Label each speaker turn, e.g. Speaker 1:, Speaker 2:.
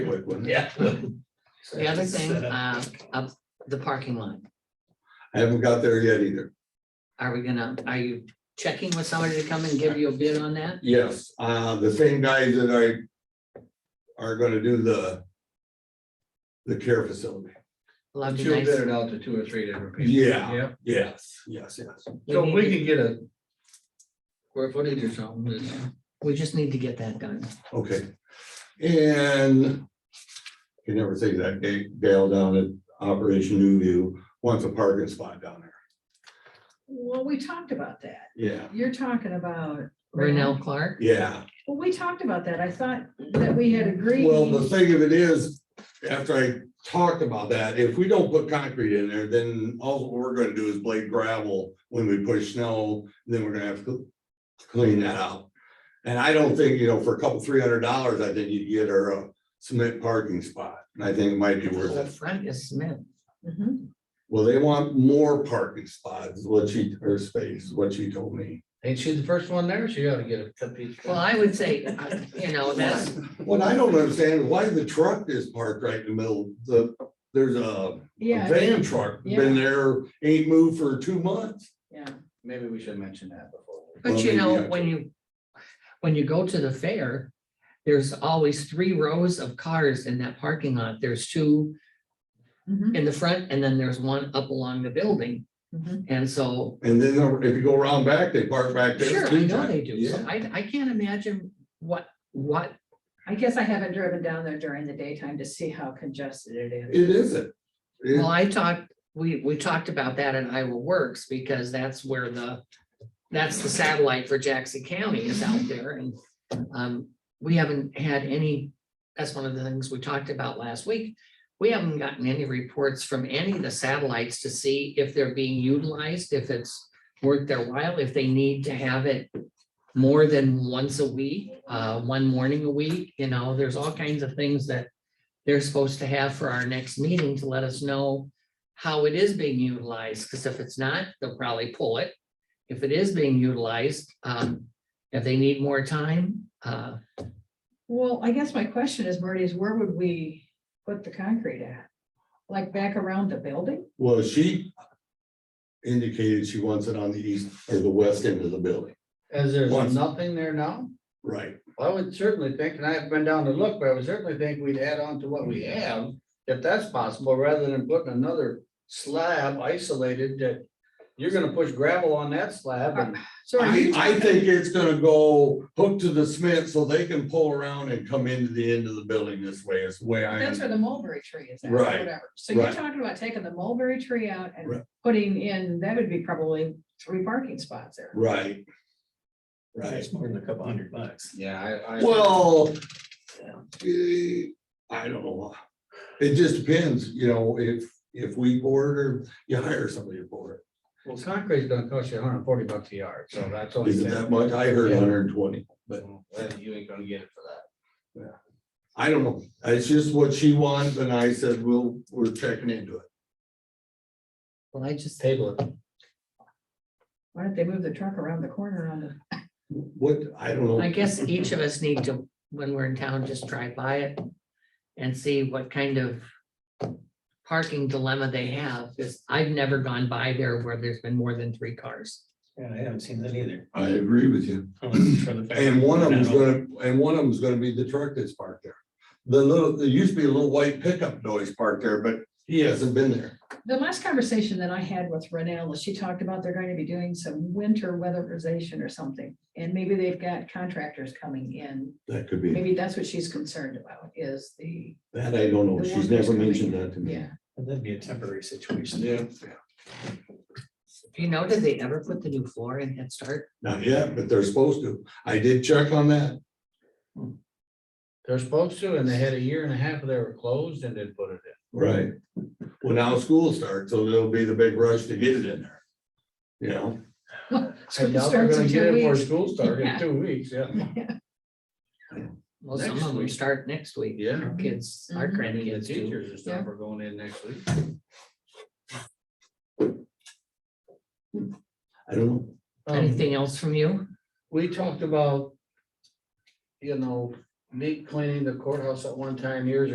Speaker 1: quick one.
Speaker 2: Yeah.
Speaker 3: The other thing, uh, up the parking lot,
Speaker 1: I haven't got there yet either.
Speaker 3: are we gonna, are you checking with somebody to come and give you a bid on that?
Speaker 1: Yes, uh, the same guys that I are gonna do the the care facility.
Speaker 3: Love
Speaker 2: She
Speaker 3: to
Speaker 2: bid
Speaker 3: nice,
Speaker 2: it out to two or three different people.
Speaker 1: Yeah.
Speaker 2: Yeah,
Speaker 1: Yes, yes, yes.
Speaker 3: we
Speaker 2: so
Speaker 3: need
Speaker 2: we
Speaker 3: to-
Speaker 2: can get a square footage or something. it's-
Speaker 3: we just need to get that done.
Speaker 1: Okay. And you never say that Ga- Gail down at Operation New View wants a parking spot down there.
Speaker 4: Well, we talked about that.
Speaker 1: Yeah.
Speaker 4: You're talking about.
Speaker 3: Renell Clark,
Speaker 1: Yeah.
Speaker 4: Well, we talked about that. I thought that we had agreed.
Speaker 1: Well, the thing of it is, after I talked about that, if we don't put concrete in there, then all we're gonna do is blade gravel when we push snow, then we're gonna have to clean that out. And I don't think, you know, for a couple, three hundred dollars, I think you'd get her a cement parking spot, and I think it might be
Speaker 3: the
Speaker 1: worth
Speaker 3: whole
Speaker 1: it.
Speaker 3: front is Smith.
Speaker 4: Mhm.
Speaker 1: Well, they want more parking spots, is what she, her space, is what she told me.
Speaker 2: Ain't she the first one there? She ought to get a cut piece.
Speaker 3: Well, I would say, uh, you know, that's,
Speaker 1: What I don't understand, is why the truck is parked right in the middle, the, there's a
Speaker 4: Yeah.
Speaker 1: A van truck,
Speaker 4: Yeah.
Speaker 1: been there, ain't moved for two months.
Speaker 4: Yeah.
Speaker 2: Maybe we should mention that before.
Speaker 3: but
Speaker 1: Well,
Speaker 3: you
Speaker 1: maybe
Speaker 3: know,
Speaker 1: I
Speaker 3: when
Speaker 1: could-
Speaker 3: you, when you go to the fair, there's always three rows of cars in that parking lot. There's two
Speaker 4: Mhm.
Speaker 3: in the front and then there's one up along the building.
Speaker 4: Mhm.
Speaker 3: And so
Speaker 1: And then if you go around back, they park back there.
Speaker 3: Sure, I
Speaker 1: too,
Speaker 3: know
Speaker 1: Jack.
Speaker 3: they do. So
Speaker 1: Yeah.
Speaker 3: I, I can't imagine what, what,
Speaker 4: I guess I haven't driven down there during the daytime to see how congested it is.
Speaker 1: It isn't. It-
Speaker 3: well, I talked, we, we talked about that in Iowa Works because that's where the, that's the satellite for Jackson County is out there and, um, we haven't had any, that's one of the things we talked about last week. We haven't gotten any reports from any of the satellites to see if they're being utilized, if it's worth their while, if they need to have it more than once a week, uh, one morning a week, you know, there's all kinds of things that they're supposed to have for our next meeting to let us know how it is being utilized, because if it's not, they'll probably pull it. If it is being utilized, um, if they need more time, uh,
Speaker 4: Well, I guess my question is, Marty, is where would we put the concrete at? Like back around the building?
Speaker 1: Well, she indicated she wants it on the east or the west end of the building.
Speaker 2: As there's
Speaker 1: Once.
Speaker 2: nothing there now,
Speaker 1: Right.
Speaker 2: I would certainly think, and I haven't been down to look, but I would certainly think we'd add on to what we have. If that's possible, rather than putting another slab isolated that you're gonna push gravel on that slab and
Speaker 4: So are
Speaker 1: I,
Speaker 4: you
Speaker 1: I think it's gonna go hook to the Smith so they can pull around and come into the end of the building this way is the way I. am.
Speaker 4: That's where the mulberry tree is. at, or
Speaker 1: Right,
Speaker 4: whatever. So you're
Speaker 1: right.
Speaker 4: talking about taking the mulberry tree out
Speaker 1: Right.
Speaker 4: and putting in, that would be probably three parking spots there.
Speaker 1: Right. Right.
Speaker 5: It's more than a couple hundred bucks.
Speaker 2: Yeah, I, I.
Speaker 1: Well, eh, I don't know. It just depends, you know, if, if we board or you hire somebody to board.
Speaker 2: Well, concrete's gonna cost you hundred and forty bucks a yard, so that's only.
Speaker 1: Is it that much? I heard hundred and twenty, but
Speaker 2: Well, You ain't gonna get it for that.
Speaker 1: I don't know. It's just what she wants and I said, we'll, we're checking into it.
Speaker 3: well, I just,
Speaker 2: Table it.
Speaker 4: Why don't they move the truck around the corner on the?
Speaker 1: What, I don't
Speaker 3: I
Speaker 1: know.
Speaker 3: guess each of us need to, when we're in town, just drive by it and see what kind of parking dilemma they have, because I've never gone by there where there's been more than three cars.
Speaker 5: Yeah, I haven't seen that either.
Speaker 1: I agree with you.
Speaker 5: Unless for the fact-
Speaker 1: And one of them's
Speaker 5: No.
Speaker 1: gonna, and one of them's gonna be the truck that's parked there. The little, there used to be a little white pickup noise parked there, but he hasn't been there.
Speaker 4: The last conversation that I had with Renell, she talked about they're going to be doing some winter weatherization or something. And maybe they've got contractors coming in.
Speaker 1: That could be.
Speaker 4: Maybe that's what she's concerned about is the.
Speaker 1: That I don't know.
Speaker 4: the
Speaker 1: She's
Speaker 4: workers
Speaker 1: never
Speaker 4: coming
Speaker 1: mentioned
Speaker 4: in.
Speaker 1: that to me.
Speaker 4: Yeah,
Speaker 5: That'd be a temporary situation.
Speaker 3: Do you know, did they ever put the new floor in Head Start?
Speaker 1: Not yet, but they're supposed to. I did check on that.
Speaker 2: They're supposed to, and they had a year and a half, they were closed and didn't put it in.
Speaker 1: Right. Well, now school starts, so there'll be the big rush to get it in there. You know,
Speaker 2: I
Speaker 4: School
Speaker 2: doubt they're
Speaker 4: starts
Speaker 2: gonna
Speaker 4: in
Speaker 2: get
Speaker 4: two
Speaker 2: it before
Speaker 4: weeks.
Speaker 2: school starts in
Speaker 4: Yeah.
Speaker 2: two weeks, yeah.
Speaker 3: Well, some
Speaker 2: Next
Speaker 3: of them
Speaker 2: week.
Speaker 3: start next week.
Speaker 2: Yeah.
Speaker 3: Kids, our
Speaker 4: Mhm.
Speaker 3: grandkids
Speaker 2: Kids,
Speaker 3: do.
Speaker 2: teachers and stuff are going in next week.
Speaker 1: I don't know.
Speaker 2: Um,
Speaker 3: Anything else from you?
Speaker 2: we talked about, you know, me cleaning the courthouse at one time years